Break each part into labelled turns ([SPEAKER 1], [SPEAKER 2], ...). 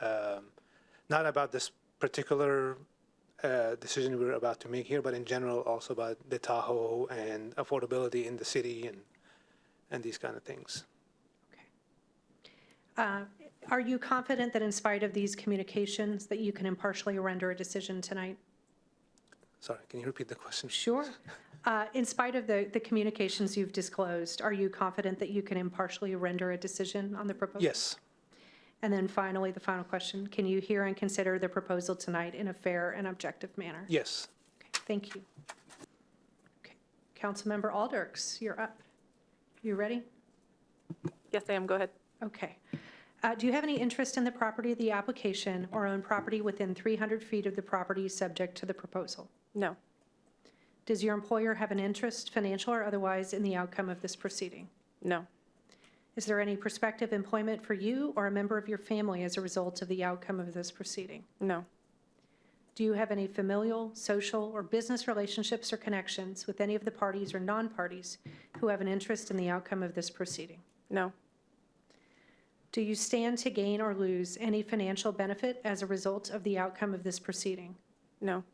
[SPEAKER 1] um, not about this particular uh, decision we're about to make here, but in general also about the Tahoe and affordability in the city and, and these kind of things.
[SPEAKER 2] Uh, Are you confident that in spite of these communications, that you can impartially render a decision tonight?
[SPEAKER 1] Sorry, can you repeat the question?
[SPEAKER 2] Sure. Uh, In spite of the, the communications you've disclosed, are you confident that you can impartially render a decision on the proposal?
[SPEAKER 1] Yes,
[SPEAKER 2] And then finally, the final question, can you hear and consider the proposal tonight in a fair and objective manner?
[SPEAKER 1] yes.
[SPEAKER 2] Okay, Thank you. Okay, Councilmember Alders, you're up. You ready?
[SPEAKER 3] Yes, I am. Go ahead.
[SPEAKER 2] Okay. Uh, Do you have any interest in the property of the application or own property within 300 feet of the property subject to the proposal?
[SPEAKER 3] No,
[SPEAKER 2] Does your employer have an interest, financial or otherwise, in the outcome of this proceeding?
[SPEAKER 3] no,
[SPEAKER 2] Is there any prospective employment for you or a member of your family as a result of the outcome of this proceeding?
[SPEAKER 3] no,
[SPEAKER 2] Do you have any familial, social, or business relationships or connections with any of the parties or non-parties who have an interest in the outcome of this proceeding?
[SPEAKER 3] no,
[SPEAKER 2] Do you stand to gain or lose any financial benefit as a result of the outcome of this proceeding?
[SPEAKER 3] no,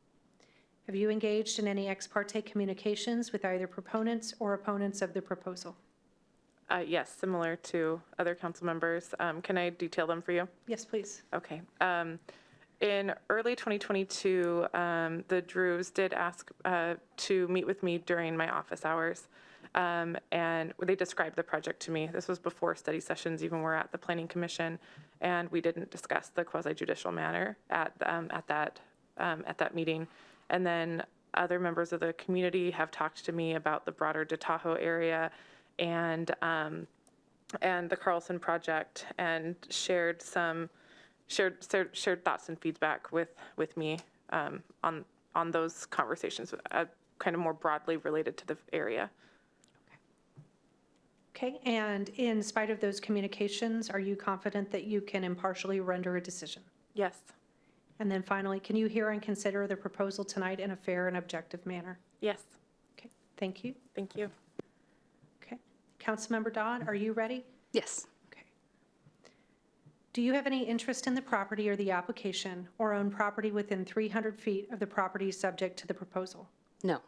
[SPEAKER 2] Have you engaged in any ex parte communications with either proponents or opponents of the proposal?
[SPEAKER 3] uh, yes, similar to other council members. Um, can I detail them for you?
[SPEAKER 2] Yes, please.
[SPEAKER 3] Okay. Um, in early 2022, um, the Drews did ask uh, to meet with me during my office hours. Um, and they described the project to me. This was before study sessions even were at the Planning Commission, and we didn't discuss the quasi judicial matter at, um, at, that, um, at that meeting. And then other members of the community have talked to me about the broader DeTahoe area and um, and the Carlson Project and shared some shared shared, shared thoughts and feedback with with me um, on on those conversations, uh, kind of more broadly related to the area.
[SPEAKER 2] Okay, and in spite of those communications, are you confident that you can impartially render a decision?
[SPEAKER 3] Yes,
[SPEAKER 2] And then finally, can you hear and consider the proposal tonight in a fair and objective manner?
[SPEAKER 3] yes,
[SPEAKER 2] Okay, thank you.
[SPEAKER 3] thank you.
[SPEAKER 2] Okay. Councilmember Dodd, are you ready?
[SPEAKER 4] Yes.
[SPEAKER 2] Okay. Do you have any interest in the property or the application or own property within 300 feet of the property subject to the proposal?
[SPEAKER 4] No.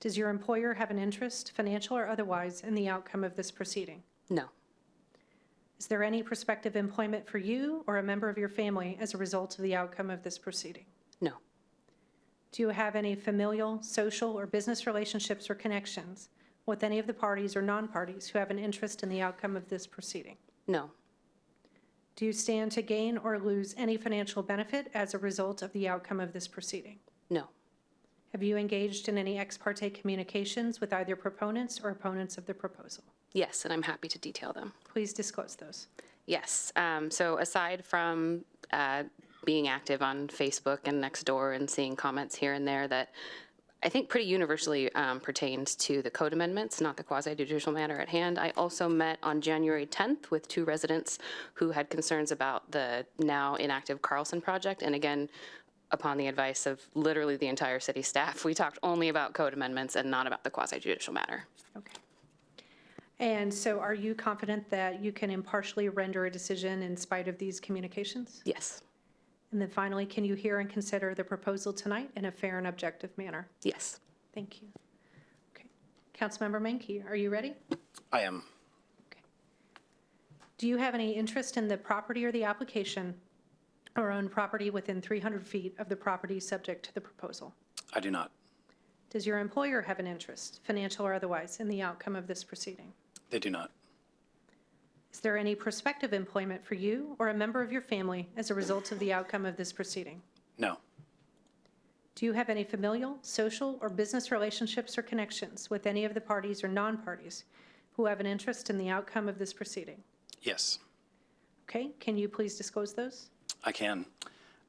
[SPEAKER 2] Does your employer have an interest, financial or otherwise, in the outcome of this proceeding?
[SPEAKER 4] No.
[SPEAKER 2] Is there any prospective employment for you or a member of your family as a result of the outcome of this proceeding?
[SPEAKER 4] No.
[SPEAKER 2] Do you have any familial, social, or business relationships or connections with any of the parties or non-parties who have an interest in the outcome of this proceeding?
[SPEAKER 4] No.
[SPEAKER 2] Do you stand to gain or lose any financial benefit as a result of the outcome of this proceeding?
[SPEAKER 4] No.
[SPEAKER 2] Have you engaged in any ex parte communications with either proponents or opponents of the proposal?
[SPEAKER 4] Yes, and I'm happy to detail them.
[SPEAKER 2] Please disclose those.
[SPEAKER 4] Yes. Um, so aside from uh, being active on Facebook and Nextdoor and seeing comments here and there that I think pretty universally um, pertains to the code amendments, not the quasi judicial matter at hand. I also met on January 10th with two residents who had concerns about the now inactive Carlson project. And again, upon the advice of literally the entire city staff, we talked only about code amendments and not about the quasi judicial matter.
[SPEAKER 2] Okay. And so are you confident that you can impartially render a decision in spite of these communications?
[SPEAKER 4] Yes.
[SPEAKER 2] And then finally, can you hear and consider the proposal tonight in a fair and objective manner?
[SPEAKER 4] Yes.
[SPEAKER 2] Thank you. Okay. Councilmember Menke, are you ready?
[SPEAKER 5] I am.
[SPEAKER 2] Do you have any interest in the property or the application or own property within 300 feet of the property subject to the proposal?
[SPEAKER 5] I do not.
[SPEAKER 2] Does your employer have an interest, financial or otherwise, in the outcome of this proceeding?
[SPEAKER 5] They do not.
[SPEAKER 2] Is there any prospective employment for you or a member of your family as a result of the outcome of this proceeding?
[SPEAKER 5] No.
[SPEAKER 2] Do you have any familial, social, or business relationships or connections with any of the parties or non-parties who have an interest in the outcome of this proceeding?
[SPEAKER 5] Yes.
[SPEAKER 2] Okay, can you please disclose those?
[SPEAKER 5] I can.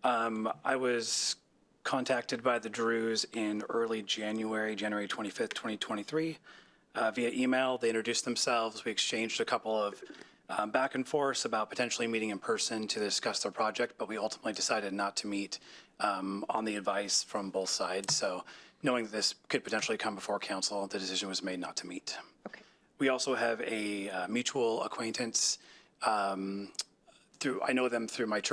[SPEAKER 5] Um, I was contacted by the Drews in early January, January 25th, 2023, uh, via email. They introduced themselves. We exchanged a couple of um, back and forth about potentially meeting in person to discuss their project, but we ultimately decided not to meet um, on the advice from both sides. So, knowing that this could potentially come before council, the decision was made not to meet.
[SPEAKER 2] Okay.
[SPEAKER 5] We also have a uh, mutual acquaintance um, through, I know them through my church